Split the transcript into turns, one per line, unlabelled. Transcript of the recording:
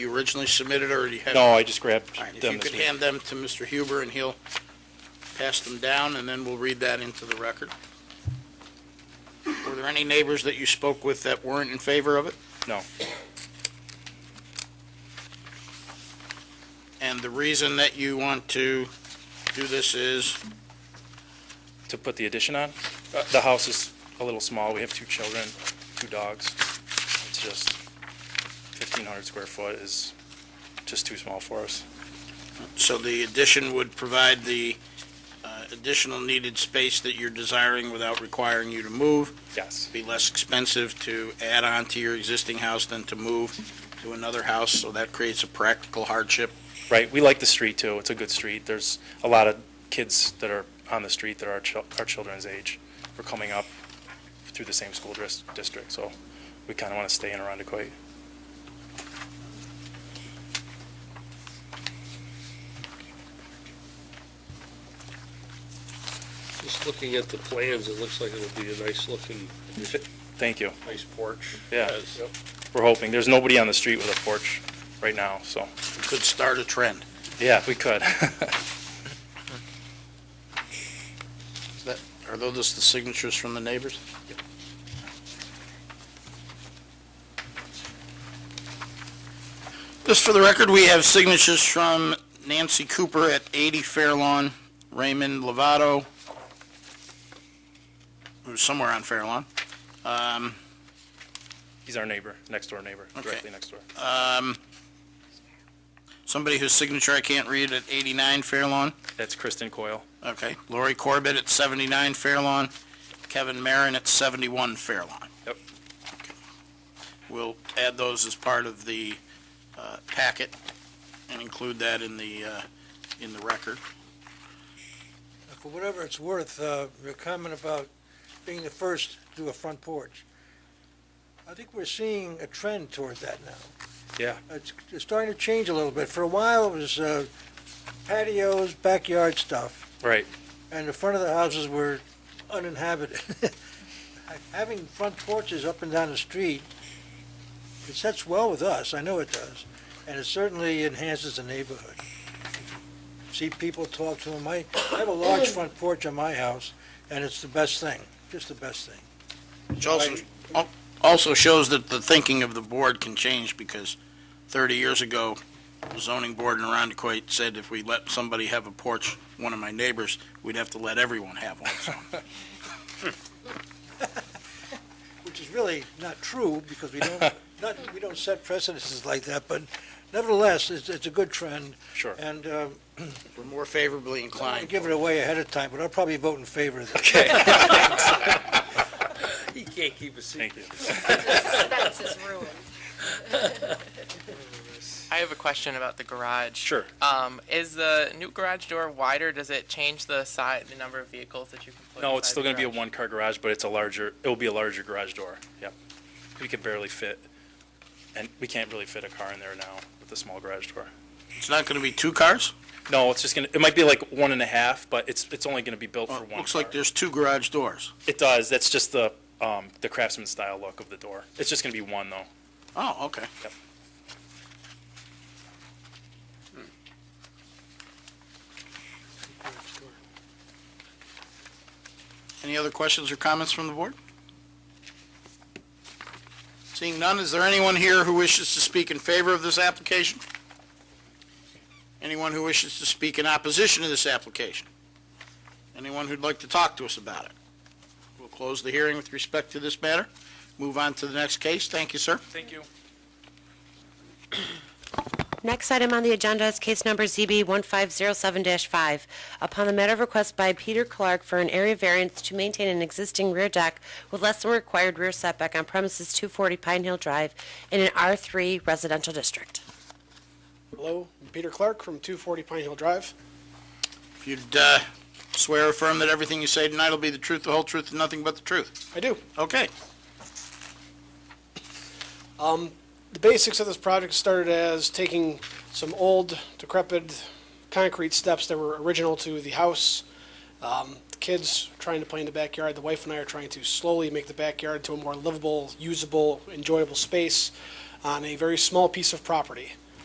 you originally submitted or you had?
No, I just grabbed
All right, if you
them
could
this week.
hand them to Mr. Huber and he'll pass them down and then we'll read that into the record. Were there any neighbors that you spoke with that weren't in favor of it?
No.
And the reason that you want to do this is,
To put the addition on? Uh, The house is a little small. We have two children, two dogs. It's just 1,500 square foot is just too small for us.
so the addition would provide the uh, additional needed space that you're desiring without requiring you to move,
Yes,
be less expensive to add on to your existing house than to move to another house, so that creates a practical hardship
right. We like the street too. It's a good street. There's a lot of kids that are on the street that are our chil- our children's age. We're coming up through the same school dris- district, so we kind of want to stay in Arundecoit.
Just looking at the plans, it looks like it'll be a nice looking,
Thank you.
nice porch.
Yeah.
Yes.
We're hoping. There's nobody on the street with a porch right now, so,
could start a trend.
yeah, if we could.
Are those just the signatures from the neighbors? Just for the record, we have signatures from Nancy Cooper at 80 Fairlawn, Raymond Lovato, who's somewhere on Fairlawn, um,
He's our neighbor, next door neighbor,
Okay. Uh,
directly next door.
somebody whose signature I can't read at 89 Fairlawn,
That's Kristen Coyle.
okay, Lori Corbett at 79 Fairlawn, Kevin Marin at 71 Fairlawn.
Yep.
We'll add those as part of the uh, packet and include that in the, uh, in the record.
Uh, For whatever it's worth, uh, your comment about being the first to do a front porch, I think we're seeing a trend towards that now. Uh,
Yeah.
It's it's starting to change a little bit. For a while, it was uh, patios, backyard stuff,
Right.
and the front of the houses were uninhabited. Having front porches up and down the street, it sets well with us, I know it does, and it certainly enhances the neighborhood. See people talk to them. I, I have a large front porch on my house, and it's the best thing, just the best thing.
Which also, al- also shows that the thinking of the board can change because 30 years ago, the zoning board in Arundecoit said if we let somebody have a porch, one of my neighbors, we'd have to let everyone have one. So
which is really not true because we don't, not, we don't set precedences like that, but nevertheless, it's, it's a good trend.
Sure.
And, um,
We're more favorably
I
inclined.
give it away ahead of time, but I'll probably vote in favor of this.
Okay.
He can't keep a secret.
Thank you.
That's his ruin.
I have a question about the garage.
Sure.
Uh,
Um, is the new garage door wider? Does it change the size, the number of vehicles that you can put?
No,
inside
it's still
the
going to be a
garage?
one-car garage, but it's a larger, it'll be a larger garage door. Yep. We could barely fit, and we can't really fit a car in there now with the small garage door.
It's not going to be two cars?
No, it's just going to, it might be like one and a half, but it's, it's only going to be built for
Well,
one
Oh, it Looks like
car.
there's two garage doors.
It does. That's just the, um, the craftsman style look of the door. It's just going to be one though.
Oh, okay.
Yep.
Hmm. Any other questions or comments from the board? Seeing none, is there anyone here who wishes to speak in favor of this application? Anyone who wishes to speak in opposition to this application? Anyone who'd like to talk to us about it? We'll close the hearing with respect to this matter, move on to the next case. Thank you, sir.
Thank you.
Next item on the agenda is case number ZB 1507-5. Upon the matter of request by Peter Clark for an area variance to maintain an existing rear deck with less than required rear setback on premises 240 Pine Hill Drive in an R3 residential district.
Hello, I'm Peter Clark from 240 Pine Hill Drive.
If you'd uh, swear or affirm that everything you say tonight will be the truth, the whole truth, and nothing but the truth.
I do.
Okay.
The basics of this project started as taking some old, decrepit concrete steps that were original to the house. Um, the kids trying to play in the backyard. The wife and I are trying to slowly make the backyard to a more livable, usable, enjoyable space on a very small piece of property.